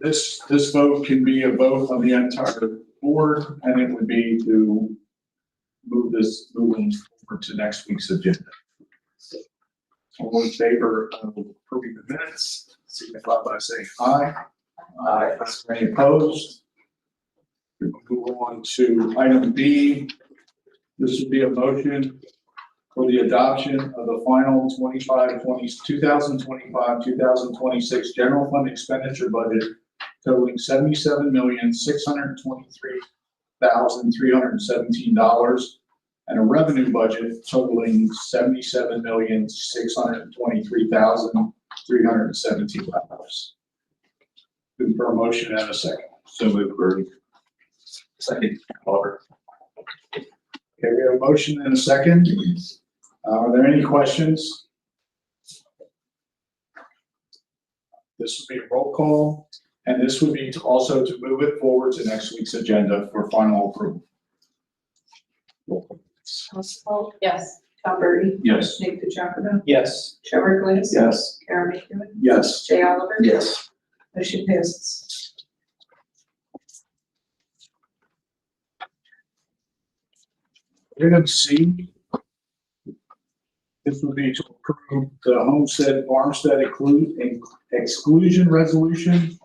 this, this vote can be a vote of the entire board, and it would be to move this, move them forward to next week's agenda. All in favor of approving the minutes, signify by saying aye. Aye. Any opposed? We Move on to item B. This would be a motion for the adoption of the final 25, 20 2025, 2026 general fund expenditure budget totaling seventy-seven million, six hundred twenty-three thousand, three hundred seventeen dollars and a revenue budget totaling seventy-seven million, six hundred twenty-three thousand, three hundred seventeen dollars. Looking for a motion and a second. So move, Birdie. Second, Oliver. Okay, we have a motion and a second. Uh, Are there any questions? This would be a roll call, and this would be to also to move it forward to next week's agenda for final approval. Huntsville, Yes. Tom Burry, Yes. Nick DeJonge, Yes. Trevor Glass. Yes. Karen McEwen, Yes. Jay Oliver. Yes. Motion passes. Item C. This would be to approve the homestead farmstead exclu- exclusion resolution.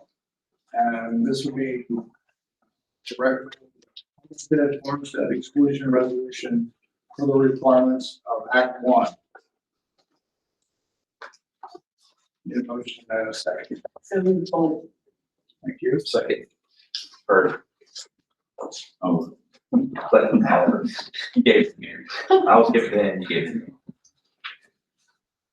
And this would be to recommend homestead farmstead exclusion resolution for the requirements of Act One. Need a motion and a second. So moved, Bolden. Thank you. Second. Birdie. Oh. Second, Oliver. You gave it to me. I was giving it in, you gave it to me.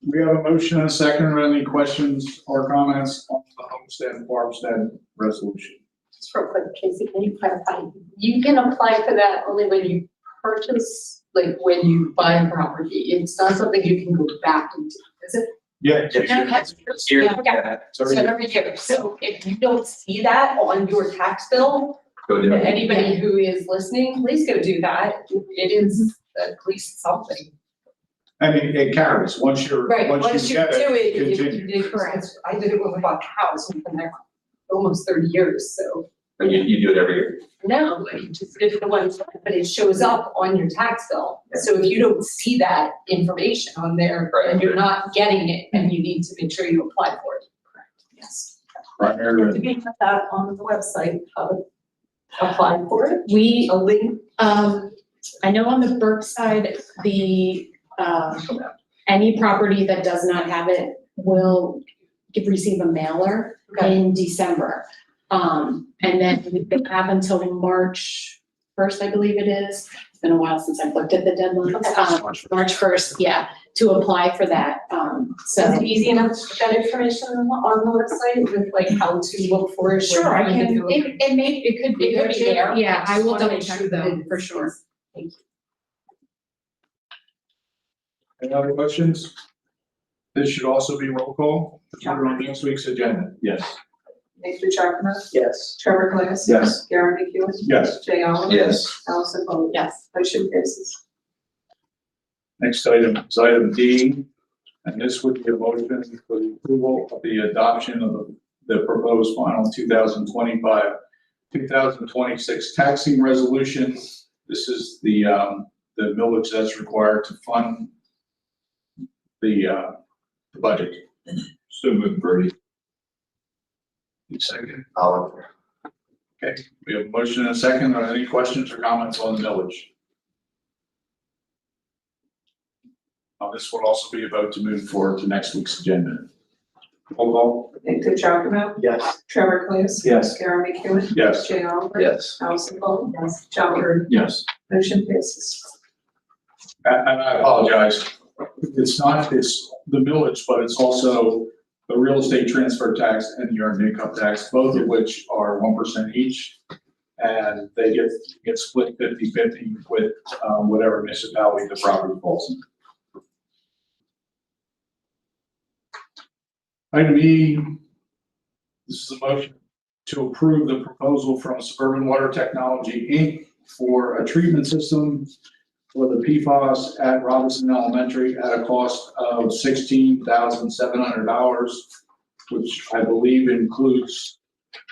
We have a motion and a second. Are there any questions or comments on the homestead and farmstead resolution? Just real quick, Casey, can you clarify? You can apply for that only when you purchase, like when you buy a property. It's not something you can go back into, is it? Yeah. Here, Yeah, okay. yeah, So Sorry. every year, so if you don't see that on your tax bill, Go do and it. anybody who is listening, please go do that. It is at least something. I mean, it carries, once you're, Right, once you get it. if you continue. did, correct. I did it when we bought the house, and been there almost thirty years, so. And you, you do it every year. No, you just did the one time, but it shows up on your tax bill. So if you don't see that information on there, then you're not getting it, and you need to make sure you apply for it. Yes. Right, Do Aaron. we have that on the website, how to apply for it? We, A link? um, I know on the Burke side, the, um, any property that does not have it will give- receive a mailer Okay. in December. Um, and then they have until March first, I believe it is. It's been a while since I've looked at the deadlines. Um, March first, yeah, to apply for that, um, so. Is it easy enough to get that information on the website with like how to look for it? Sure, I can, it, it may, it could, It it could could be there. yeah, I will Just wanna double make check sure that them, it- for sure. Any other questions? This should also be roll call, we're on next week's agenda. Yes. Nick DeJonge, Yes. Trevor Glass. Yes. Karen McEwen, Yes. Jay Oliver. Yes. Allison Paul. Yes. Motion passes. Next item is item D, and this would be a motion for the approval of the adoption of the- the proposed final two thousand twenty-five, two thousand twenty-six taxing resolution. This is the, um, the millage that's required to fund the, uh, the budget. So move, Birdie. Second. Oliver. We have a motion and a second. Are there any questions or comments on the millage? Uh, this will also be a vote to move forward to next week's agenda. Roll call. Nick DeJonge, Yes. Trevor Glass. Yes. Karen McEwen, Yes. Jay Oliver. Yes. Allison Paul. Yes. John Burry. Yes. Motion passes. And, and I apologize. It's not, it's the millage, but it's also the real estate transfer tax and the earned income tax, both of which are one percent each. And they get, get split 50-50 with, um, whatever municipality the property falls in. Item E, this is a motion to approve the proposal from Suburban Water Technology, Inc. for a treatment system for the PFAS at Robinson Elementary at a cost of sixteen thousand seven hundred dollars, which I believe includes